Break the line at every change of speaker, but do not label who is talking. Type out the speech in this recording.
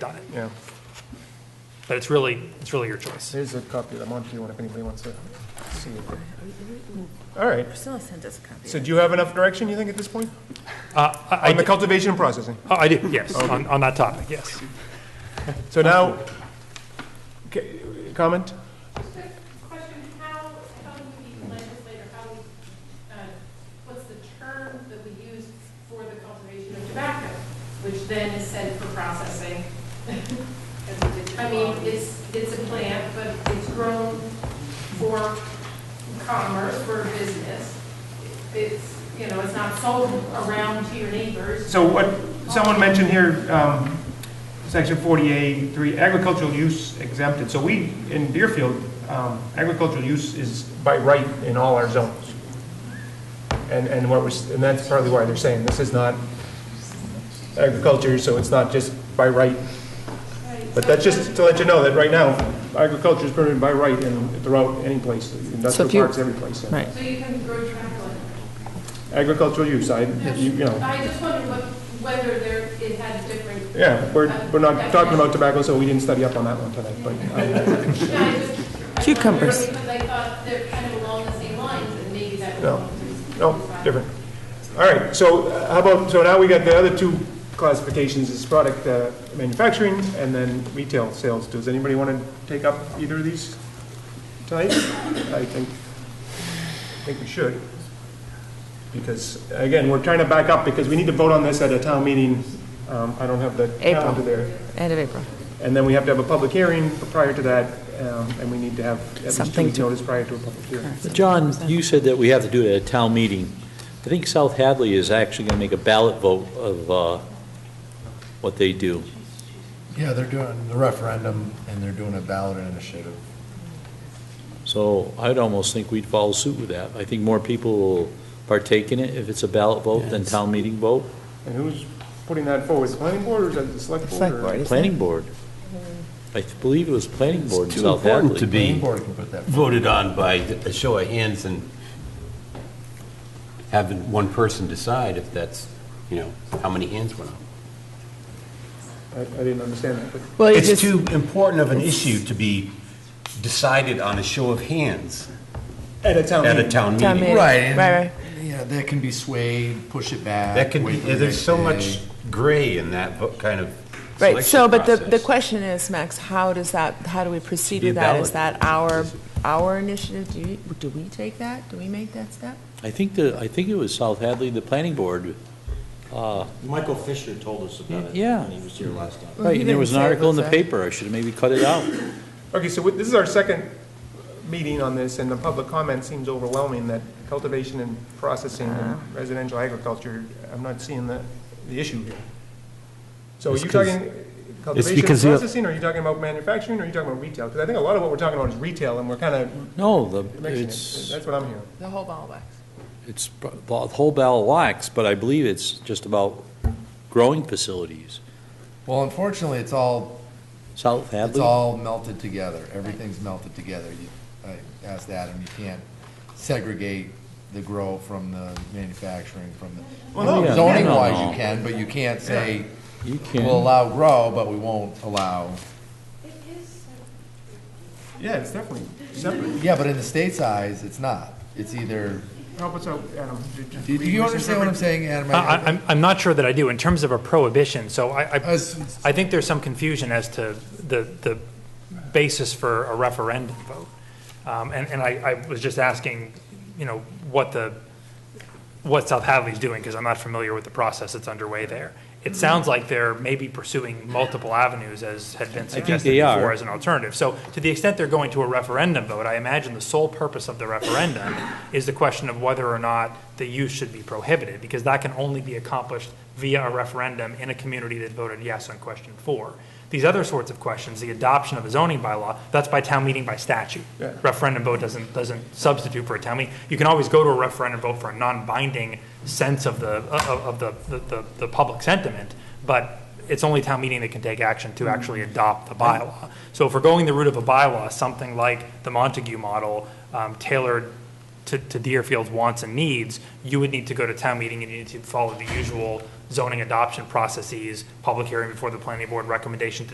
yeah.
But it's really, it's really your choice.
There's a copy of the Monty one if anybody wants to see it. All right,
Priscilla sent us a copy.
so do you have enough direction, you think, at this point?
Uh, I, I
On the
did-
cultivation and processing?
oh, I did, yes, on, on that topic, yes.
So now, okay, comment?
Just a question, how, how do we legislate, or how, we, uh, what's the term that we use for the cultivation of tobacco, which then is sent for processing? I mean, it's, it's a plant, but it's grown for commerce, for business. It's, you know, it's not sold around to your neighbors.
So what, someone mentioned here, um, section 48, 3, agricultural use exempted. So we, in Deerfield, um, agricultural use is,
By right in all our zones. And, and what was, and that's partly why they're saying this is not agriculture, so it's not just by right. But that's just to let you know that right now, agriculture is permitted by right in, throughout any place, industrial
if you-
parks, every place.
Right.
So you can grow tobacco.
Agricultural use, I, you you know,
I just wondered what, whether there, it had different
yeah, we're, we're not talking about tobacco, so we didn't study up on that one tonight, but, um,
Yeah, I just- I
Cucumbers.
wondered Because I thought they're kind of along the same lines, and maybe that was.
No. No, different. All right, so uh, how about, so now we got the other two classifications is product uh, manufacturing and then retail sales. Does anybody want to take up either of these tonight? I think, I think we should. Because, again, we're trying to back up because we need to vote on this at a town meeting. Um, I don't have the
April.
calendar there.
End of April.
And then we have to have a public hearing prior to that, um, and we need to have at least two
Something
weeks'
to-
notice prior to a public hearing.
John, you said that we have to do it at a town meeting. I think South Hadley is actually going to make a ballot vote of uh, what they do.
Yeah, they're doing the referendum, and they're doing a ballot initiative.
So I'd almost think we'd follow suit with that. I think more people will partake in it if it's a ballot vote than town meeting vote.
And who's putting that forward? The planning board or is that the select board?
Select
or-
board.
Planning board. I believe it was planning board in
Too
South
important to
Hadley.
Planning
be
board can put that.
voted on by a show of hands and having one person decide if that's, you know, how many hands went up.
I, I didn't understand that, but,
Well, you
It's
just,
too important of an issue to be decided on a show of hands
at a town
at a
meeting.
town
Town
meeting.
meeting.
Right, and-
Right, right.
Yeah, that can be swayed, push it back.
That could be,
wait for the
there's
next
so
day.
much gray in that vo- kind of selection
right, so, but the, the
process.
question is, Max, how does that, how do we proceed
Be a
with that? Is
ballot.
that our, our initiative? Do you, do we take that? Do we make that step?
I think the, I think it was South Hadley, the planning board. uh,
Michael Fisher told us about it
Yeah.
when he was here last time.
Well, he
Right, and there
didn't
was an
say it
article in
was
the
a-
paper. I should have maybe cut it out.
Okay, so we- this is our second meeting on this, and the public comment seems overwhelming that cultivation and processing
Ah.
and residential agriculture, I'm not seeing the, the issue here. So are
It's
you
'cause-
talking cultivation and
because you-
processing, or are you talking about manufacturing, or are you talking about retail? Because I think a lot of what we're talking about is retail, and we're kind of
No, the,
mixing
it's.
it. That's what I'm hearing.
The whole ball wax.
It's b- the whole ball of wax, but I believe it's just about growing facilities.
Well, unfortunately, it's all,
South
it's
Hadley,
all melted together. Everything's melted together. You- I asked Adam, you can't segregate the grow from the manufacturing from
Well, no,
the,
yeah.
zoning wise
No.
you can, but you can't say,
you
we'll
can,
allow grow, but we won't allow.
Yeah, it's definitely separate.
Yeah, but in the state's eyes, it's not. It's either,
Help us out, Adam. Did
do do you understand what I'm saying, Adam?
I, I- I'm, I'm not sure that I do, in terms of a prohibition, so I, I,
As-
I think there's some confusion as to the, the basis for a referendum vote. Um, and, and I, I was just asking, you know, what the, what South Hadley's doing, because I'm not familiar with the process that's underway there. It sounds like they're maybe pursuing multiple avenues, as had been
think
suggested
they are.
before, as an alternative. So to the extent they're going to a referendum vote, I imagine the sole purpose of the referendum is the question of whether or not the use should be prohibited, because that can only be accomplished via a referendum in a community that voted yes on question four. These other sorts of questions, the adoption of a zoning bylaw, that's by town meeting by statute.
Yeah.
Referendum vote doesn't, doesn't substitute for a town meeting. You can always go to a referendum vote for a non-binding sense of the, of, of the, the, the public sentiment, but it's only town meeting that can take action to actually adopt the bylaw. So if we're going the route of a bylaw, something like the Montague model, um, tailored to, to Deerfield's wants and needs, you would need to go to town meeting and you need to follow the usual zoning adoption processes, public hearing before the planning board, recommendation to